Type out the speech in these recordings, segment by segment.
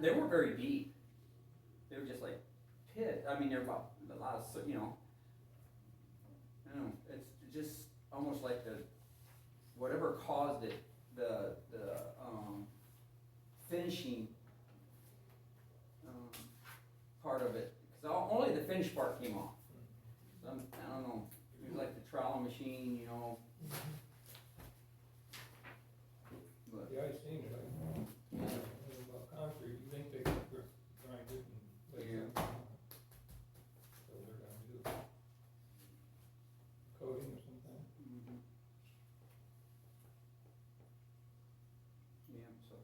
they weren't very deep. They were just like pit. I mean, they're about a lot of so- you know. I don't know. It's just almost like the whatever caused it. The the um, finishing um, part of it because only the finish part came off. So I'm, I don't know. It was like the trowel machine, you know. But Yeah, I seen it, I yeah. don't know about concrete, you think they could gr- grind it and lay it down? So they're gonna do coating or something. Mhm. Yeah, so.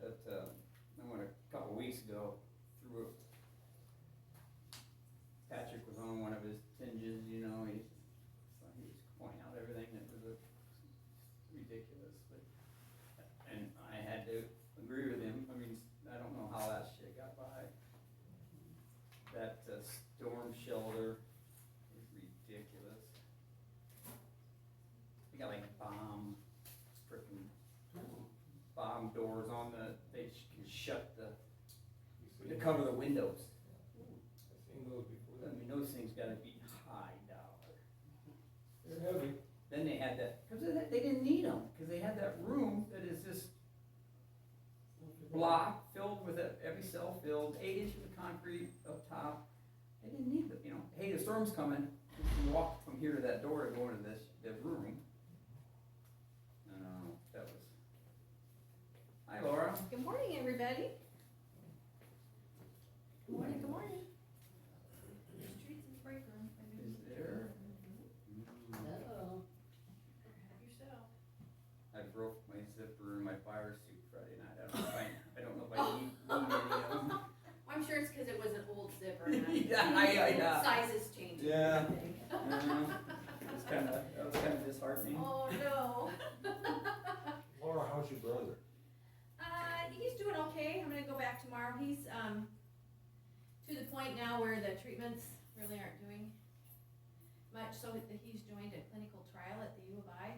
That, uh, I went a couple weeks ago through, Patrick was on one of his tinges, you know, he, he was pointing out everything that was a ridiculous, but, and I had to agree with him, I mean, I don't know how that shit got by. That uh, storm shelter is ridiculous. They got like bomb, frickin' bomb doors on the, they sh- can shut the, You seen to it? cover the windows. I seen those before, I mean, those things gotta be high dollar. they're heavy, Then they had that, cause they, they didn't need them, cause they had that room that is just block filled with, a- every cell filled, eight inches of concrete up top. They didn't need the, you know, hey, the storm's coming, you can walk from here to that door to go into this, the room. No, no, no, that was. Hi Laura, Good morning, everybody. Good morning, good morning. Streets and break room. is there? Mm, Uh-oh. Yourself. I broke my zipper in my fire suit Friday night, I don't know if I, I don't know if I need, need any of them. I'm sure it's because it was an old zipper. and I- Yeah, I- I- yeah. Sizes changed. Yeah. Yeah. It's kinda, that was kinda disheartening. Oh, no. Laura, how's your brother? Uh, he's doing okay. I'm gonna go back tomorrow. He's, um, to the point now where the treatments really aren't doing much, so that he's joined a clinical trial at the U of I.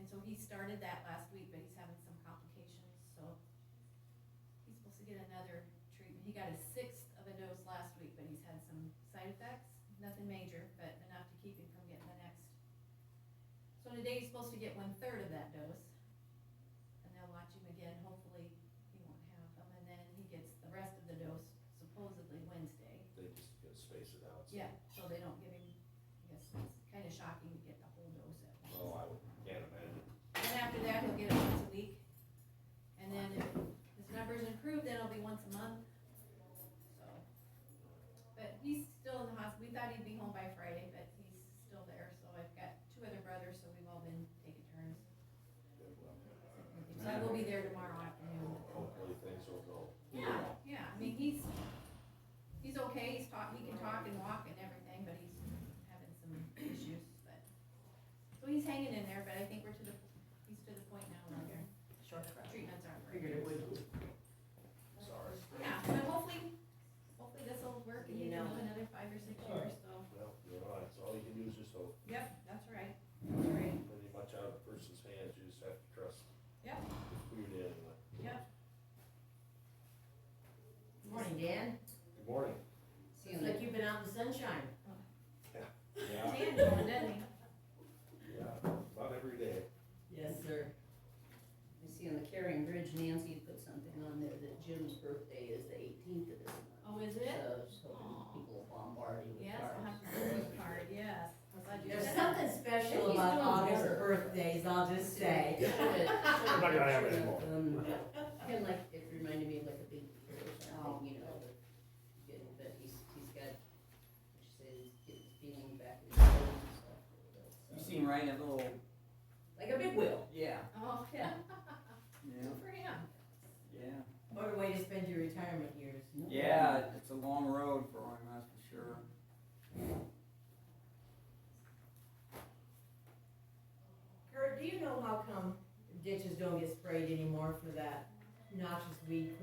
And so he started that last week, but he's having some complications, so he's supposed to get another treatment. He got a sixth of a dose last week, but he's had some side effects, nothing major, but enough to keep him from getting the next. So today he's supposed to get one-third of that dose and they'll watch him again, hopefully he won't have them, and then he gets the rest of the dose supposedly Wednesday. They just gotta space it out. so- Yeah, so they don't give him, I guess it's kinda shocking to get the whole dose at once. Oh, I would- can't imagine. And after that, he'll get it once a week, and then if his numbers improve, then it'll be once a month, so. But he's still in the hospital, we thought he'd be home by Friday, but he's still there, so I've got two other brothers, so we've all been taking turns. Good luck. So I will be there tomorrow afternoon with them. Hopefully things will go. Yeah, yeah, I mean, he's, he's okay, he's talk, he can talk and walk and everything, but he's having some issues, but. So he's hanging in there, but I think we're to the, he's to the point now where their Short crowd. treatments aren't working. Figured it would be. Sorry. Yeah, but hopefully, hopefully this'll work and You he can know. live another five or six years, so, Well, you're right. So all you can do is just hope. yep, that's right, that's right, Pretty much out of a person's hands, you just have to trust. Yep. It's Weird anyway. yep. Morning, Dan. Good morning. Seems like you've been out in the sunshine. Yeah, Dan, doesn't he? yeah, about every day. Yes, sir. I see on the Carrying Bridge, Nancy put something on there that Jim's birthday is the eighteenth of this month. Oh, is it? So, so people bombard you with Yes, I'll have cards. to go with the card, yes, I'm glad you There's said that. something special He's about doing August better. birthdays, I'll just say. Yeah. I'm not gonna have any more. Kind of Um, like, it reminded me of like a big beer or Oh. something, you know, but, good, but he's, he's got, what you say, he's getting his feeling back in his toes and stuff. You seem right in a little, Like a big wheel. yeah, Oh, yeah, yeah, good for him. yeah. What a way to spend your retirement years. No Yeah, it's a long road for him, that's for sure. Kurt, do you know how come ditches don't get sprayed anymore for that noxious weed